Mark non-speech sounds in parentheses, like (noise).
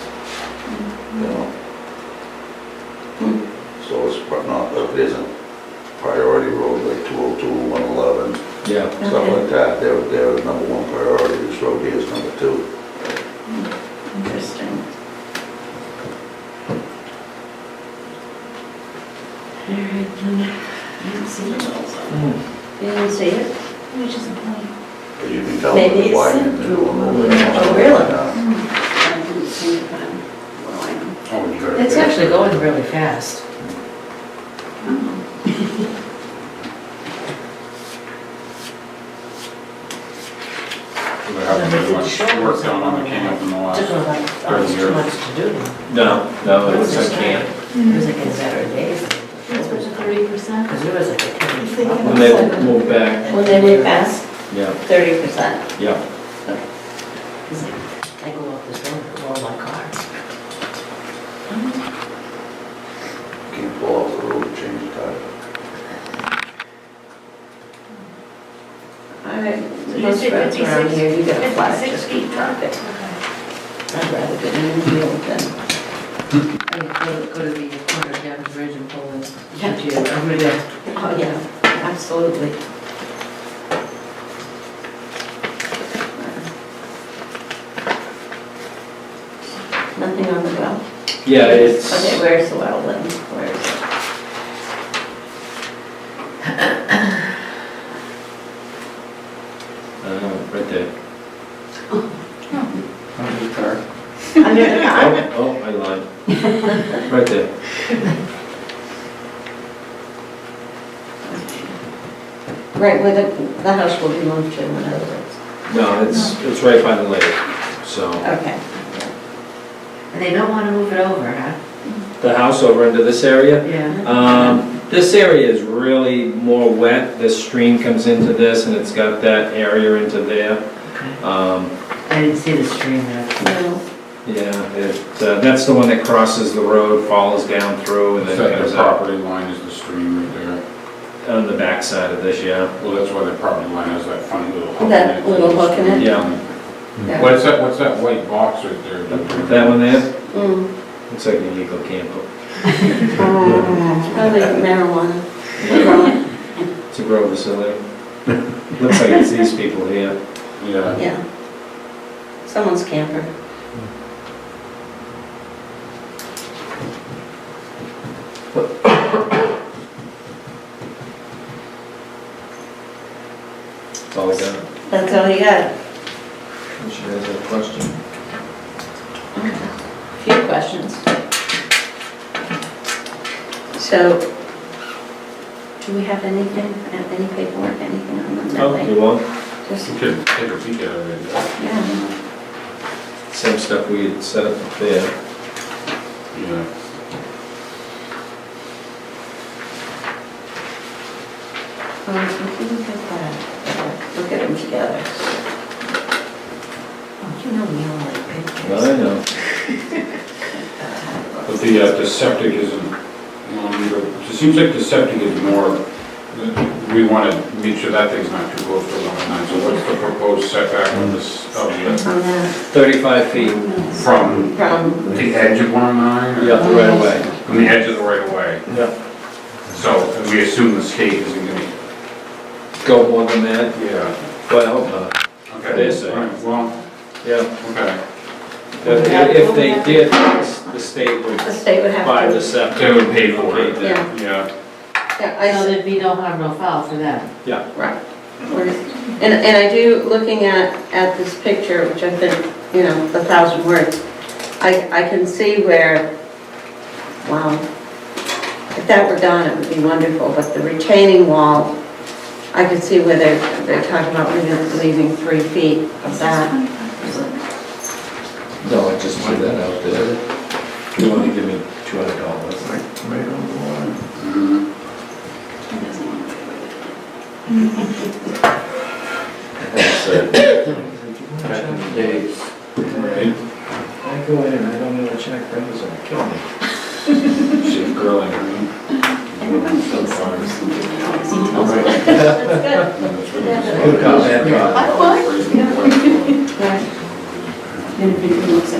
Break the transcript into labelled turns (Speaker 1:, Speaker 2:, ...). Speaker 1: Hmm. whatnot, that uh, isn't priority road like 202, 111,
Speaker 2: Yeah,
Speaker 1: stuff like that, they're, they're number one priority, this road here is number two.
Speaker 3: Interesting. All right, then, I didn't see it also. You didn't see it?
Speaker 4: Which is a point.
Speaker 1: As you can tell,
Speaker 3: Maybe
Speaker 1: it's
Speaker 3: it's
Speaker 1: widening.
Speaker 3: in-
Speaker 1: they're doing over there.
Speaker 3: Oh, really?
Speaker 1: Yeah.
Speaker 3: I didn't see it, but I'm, well, I know.
Speaker 4: It's actually going really fast.
Speaker 5: So there hasn't been much work done on the camp in the
Speaker 4: Took them
Speaker 5: last,
Speaker 4: like almost two
Speaker 5: years.
Speaker 4: months to do them.
Speaker 2: no, no, it was a camp.
Speaker 4: It was like in seven days.
Speaker 6: That's what the thirty percent.
Speaker 4: Because it was like a ten.
Speaker 2: When they moved back,
Speaker 3: Well, they went past
Speaker 2: yeah,
Speaker 3: thirty percent.
Speaker 2: yeah.
Speaker 4: He's like, I go off this road, and roll my car.
Speaker 1: Can't pull off the road, change the tire.
Speaker 3: All right,
Speaker 6: You
Speaker 3: most
Speaker 6: said
Speaker 3: roads around
Speaker 6: 56
Speaker 3: here, you got a flat,
Speaker 6: 56
Speaker 3: just keep
Speaker 6: feet.
Speaker 3: traffic. I'd rather get in the field than,
Speaker 4: I go to, go to the corner of Downey Bridge and pull in.
Speaker 3: Yeah.
Speaker 4: Gee, I'm really like,
Speaker 3: oh, yeah, absolutely. Nothing on the well?
Speaker 2: Yeah, it's,
Speaker 3: Okay, where's the well then? Where is it?
Speaker 2: uh, right there.
Speaker 3: (laughs) (laughs) Under,
Speaker 2: Oh, oh, I lied. Right there.
Speaker 3: right where the, the house will be moved to, in other words.
Speaker 2: No, it's, it's right by the lake, so.
Speaker 3: Okay.
Speaker 4: And they don't want to move it over, huh?
Speaker 2: The house over into this area,
Speaker 4: Yeah.
Speaker 2: Um, This area is really more wet, this stream comes into this, and it's got that area into there.
Speaker 4: Okay.
Speaker 2: Um,
Speaker 4: I didn't see the stream there.
Speaker 3: No,
Speaker 2: Yeah, it, uh, that's the one that crosses the road, falls down through, and then
Speaker 5: the
Speaker 2: goes up
Speaker 5: property line is the stream right there.
Speaker 2: on the backside of this, yeah.
Speaker 5: Well, that's why the property line has that funny little hook in it.
Speaker 3: That little hook in it?
Speaker 2: Yeah.
Speaker 3: yeah.
Speaker 5: What's that, what's that white box right there?
Speaker 2: That one there,
Speaker 3: Mm.
Speaker 2: looks like an illegal camper.
Speaker 3: Oh, Probably marijuana. (laughs)
Speaker 2: It's a grow (laughs) facility. Looks like it's these people here.
Speaker 5: Yeah.
Speaker 3: Yeah. Someone's camper.
Speaker 2: That's all I got.
Speaker 3: That's all you got?
Speaker 2: Unless you guys have a question.
Speaker 3: Few questions. So, do we have anything, have any paperwork, anything on them that
Speaker 2: Oh,
Speaker 3: way?
Speaker 2: you want?
Speaker 3: Just,
Speaker 5: You could take a peek at it. right
Speaker 3: yeah,
Speaker 2: Same stuff we had set up up there.
Speaker 5: there. Yeah.
Speaker 3: well, if we can get that, look at them together.
Speaker 4: Oh, You know we all like pictures.
Speaker 2: Well, I know.
Speaker 5: But the, uh, the septic isn't, um, it seems like the septic is more, we want to make sure that thing's not too close to the line line. So what's the proposed setback on this, of the,
Speaker 3: On that,
Speaker 2: 35 feet.
Speaker 5: from
Speaker 3: Oh, from,
Speaker 5: the edge of 109?
Speaker 2: Yeah, right away.
Speaker 5: From the edge of the right of way.
Speaker 2: Yeah.
Speaker 5: So we assume the state isn't gonna.
Speaker 2: Go more than that,
Speaker 5: Yeah.
Speaker 2: but I hope not.
Speaker 5: Okay.
Speaker 2: They say.
Speaker 5: All right, Well,
Speaker 2: Yeah.
Speaker 5: okay.
Speaker 2: If they did, the state would
Speaker 3: the state would have to.
Speaker 2: buy the septic.
Speaker 5: They would pay for it.
Speaker 2: Pay them.
Speaker 5: Yeah.
Speaker 3: Yeah, I
Speaker 4: So there'd be no harm, no foul for them.
Speaker 3: Right. And, and I do, looking at, at this picture, which I've been, you know, a thousand words, I, I can see where, wow, if that were done, it would be wonderful, but the retaining wall, I could see where they're, they're talking about leaving, leaving three feet of that.
Speaker 2: No, I just threw that out there. You wanna give me $200?
Speaker 1: Right on the line.
Speaker 5: Mhm.
Speaker 2: That's uh, it. Back in the days.
Speaker 5: Right.
Speaker 2: I go in and I don't know what check brings, it'll kill me.
Speaker 5: She's grilling.
Speaker 6: Everyone thinks so.
Speaker 5: Right. (laughs)
Speaker 3: That's
Speaker 5: That's what
Speaker 2: Good comment, Bob.
Speaker 6: I would.
Speaker 5: it is.
Speaker 3: good. Right.
Speaker 6: Then people looks at